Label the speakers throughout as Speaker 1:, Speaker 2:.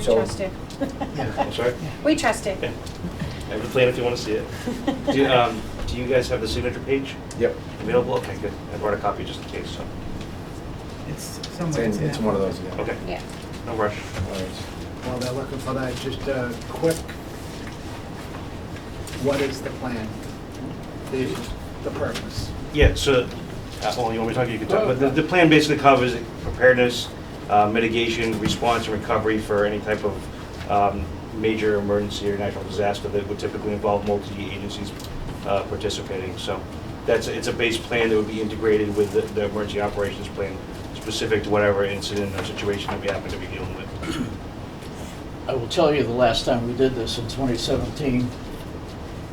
Speaker 1: so-
Speaker 2: trust him.
Speaker 1: Yeah.
Speaker 3: I'm sorry?
Speaker 2: We trust him.
Speaker 3: Okay. I have a plan if you want to see it. Do you, um, do you guys have the signature page
Speaker 1: Yep.
Speaker 3: available? Okay, good. I brought a copy just in case, so,
Speaker 4: It's
Speaker 1: It's
Speaker 4: somewhere.
Speaker 1: in,
Speaker 4: in
Speaker 1: it's
Speaker 4: that.
Speaker 1: one of those, yeah.
Speaker 3: okay,
Speaker 2: Yeah.
Speaker 3: no rush.
Speaker 1: All right.
Speaker 5: While they're looking for that, just a quick, what is the plan? The, the purpose?
Speaker 3: Yeah, so, uh, well, you want me to talk, you can talk, but the, the plan basically covers preparedness, uh, mitigation, response, and recovery for any type of um, major emergency or natural disaster that would typically involve multi-agencies uh, participating. So that's, it's a base plan that would be integrated with the, the emergency operations plan specific to whatever incident or situation that we happen to be dealing with.
Speaker 6: I will tell you, the last time we did this in 2017,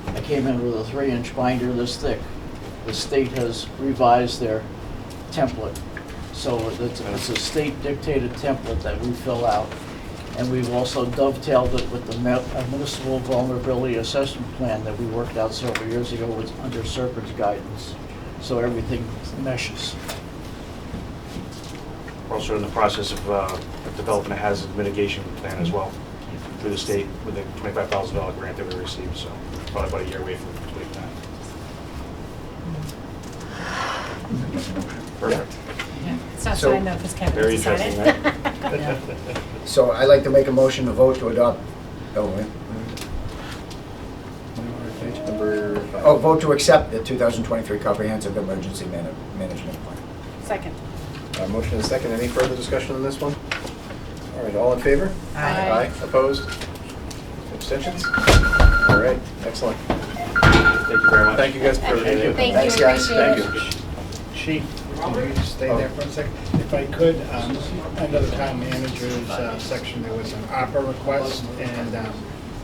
Speaker 6: I came in with a three-inch binder this thick. The state has revised their template, so it's it's a state dictated template that we fill out. And we've also dovetailed it with the mu- municipal vulnerability assessment plan that we worked out several years ago was under Serpent's guidance. So everything meshes.
Speaker 3: We're also in the process of uh, developing a hazard mitigation plan as well through the state with a $25,000 grant that we received, so probably about a year away from completing that. Perfect.
Speaker 2: It's not
Speaker 1: So,
Speaker 2: signed though, because Kevin
Speaker 3: Very
Speaker 2: has to sign
Speaker 3: interesting,
Speaker 2: it.
Speaker 3: right?
Speaker 1: So I'd like to make a motion to vote to adopt, oh, wait.
Speaker 4: Number five.
Speaker 1: Oh, vote to accept the 2023 Comprehensive Emergency Mana- Management Plan.
Speaker 2: Second.
Speaker 7: Uh, Motion and second. Any further discussion on this one? All right, all in favor?
Speaker 2: Aye.
Speaker 7: Opposed? Abstentions? All right, excellent.
Speaker 3: Thank you very much.
Speaker 7: Thank you guys for
Speaker 6: Thank you.
Speaker 7: everything.
Speaker 2: Thank
Speaker 1: Thanks,
Speaker 2: you,
Speaker 1: guys.
Speaker 2: appreciate it.
Speaker 7: Thank you.
Speaker 6: She,
Speaker 5: Can you stay there for a second? If I could, um, under the town manager's uh, section, there was an ARPA request, and um,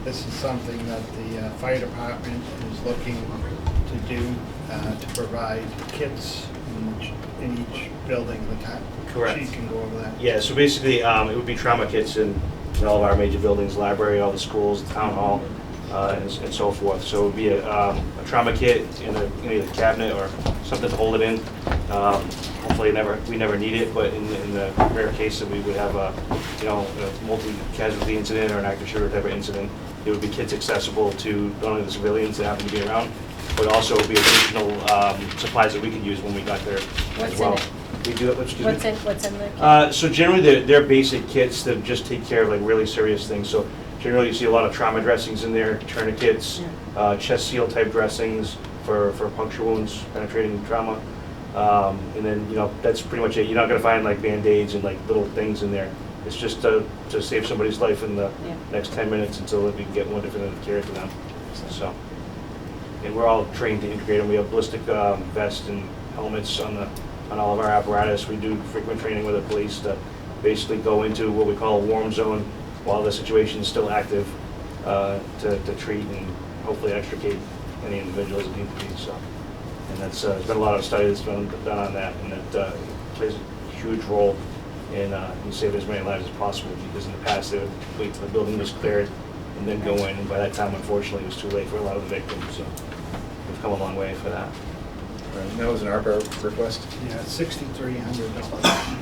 Speaker 5: this is something that the uh, fire department is looking to do, uh, to provide kits in each- in each building in the town.
Speaker 3: Correct.
Speaker 5: She can go over that.
Speaker 3: Yeah, so basically, um, it would be trauma kits in, in all of our major buildings, library, all the schools, town hall, uh, and, s- and so forth. So it would be a, um, a trauma kit in a, in a cabinet or something to hold it in. Um, hopefully, never we never need it, but in, in the rare case that we would have a, you know, a multi-casualty incident or an active shooter type of incident, it would be kits accessible to not only the civilians that happen to be around, but also would be additional um, supplies that we could use when we got there
Speaker 2: What's
Speaker 3: as
Speaker 2: in
Speaker 3: well.
Speaker 2: it?
Speaker 3: We do, excuse me?
Speaker 2: What's in, what's in the,
Speaker 3: Uh, So generally, they're, they're basic kits that just take care of like really serious things. So generally, you see a lot of trauma dressings in there, tourniquets, uh, chest seal type dressings for, for puncture wounds, penetrating trauma. Um, And then, you know, that's pretty much it. You're not gonna find like Band-Aids and like little things in there. It's just to, to save somebody's life in the
Speaker 2: Yeah.
Speaker 3: next ten minutes until we can get one different and carry it to them, so. And we're all trained to integrate them. We have ballistic um, vests and helmets on the, on all of our apparatus. We do frequent training with the police to basically go into what we call a warm zone while the situation is still active uh, to, to treat and hopefully extricate any individuals that need to be, so. And that's, uh, there's been a lot of study that's been done on that, and it uh, plays a huge role in, uh, in saving as many lives as possible, because in the past, they would wait till the building was cleared and then go in, and by that time, unfortunately, it was too late for a lot of the victims, so we've come a long way for that.
Speaker 7: All right, and That was an ARPA request.
Speaker 5: Yeah, sixty-three hundred dollars.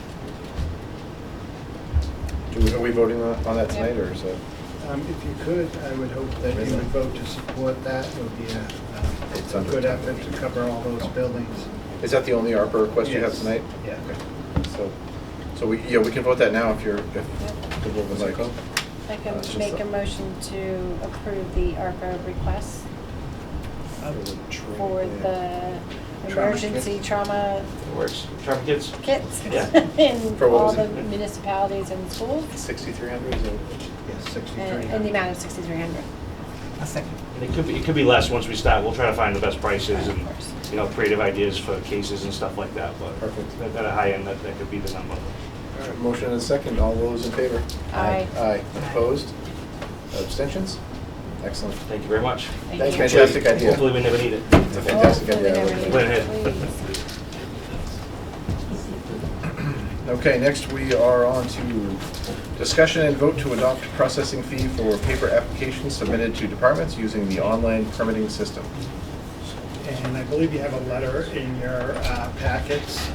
Speaker 7: Do we, are we voting on on that tonight, or is that?
Speaker 5: Um, If you could, I would hope that you would vote to support that. It would be a uh,
Speaker 7: It's under-
Speaker 5: good effort to cover all those buildings.
Speaker 7: Is that the only ARPA request you have
Speaker 5: Yes.
Speaker 7: tonight?
Speaker 5: Yeah.
Speaker 7: Okay. So, so we, yeah, we can vote that now if you're, if the vote was like.
Speaker 2: I
Speaker 7: Uh,
Speaker 2: can
Speaker 7: it's just
Speaker 2: make
Speaker 7: a-
Speaker 2: a motion to approve the ARPA request Um, for the
Speaker 5: Trauma kit.
Speaker 2: emergency trauma
Speaker 3: It works. Traffic kids?
Speaker 2: kits
Speaker 3: Yeah.
Speaker 2: in
Speaker 7: For what
Speaker 2: all
Speaker 7: was
Speaker 2: the
Speaker 7: it?
Speaker 2: municipalities and schools,
Speaker 7: Sixty-three hundred, is that?
Speaker 5: Yes,
Speaker 2: and
Speaker 5: sixty-three
Speaker 2: and the
Speaker 5: hundred.
Speaker 2: amount of sixty-three hundred.
Speaker 4: A second.
Speaker 3: And It could be, it could be less once we start. We'll try to find the best prices and,
Speaker 2: Of course.
Speaker 3: you know, creative ideas for cases and stuff like that, but
Speaker 7: Perfect.
Speaker 3: at at a high end, that, that could be the number.
Speaker 7: All right, motion and a second, all those in favor?
Speaker 2: Aye.
Speaker 7: Aye, opposed? Abstentions? Excellent.
Speaker 3: Thank you very much.
Speaker 2: Thank you. Oh,
Speaker 7: Fantastic idea.
Speaker 3: Hopefully, we never need it.
Speaker 7: It's a fantastic
Speaker 2: Hopefully
Speaker 7: idea. I love
Speaker 2: never need
Speaker 7: it.
Speaker 3: Plan
Speaker 2: it,
Speaker 3: ahead.
Speaker 2: please.
Speaker 7: Okay, next we are on to discussion and vote to adopt processing fee for paper applications submitted to departments using the online permitting system.
Speaker 5: And I believe you have a letter in your uh, packets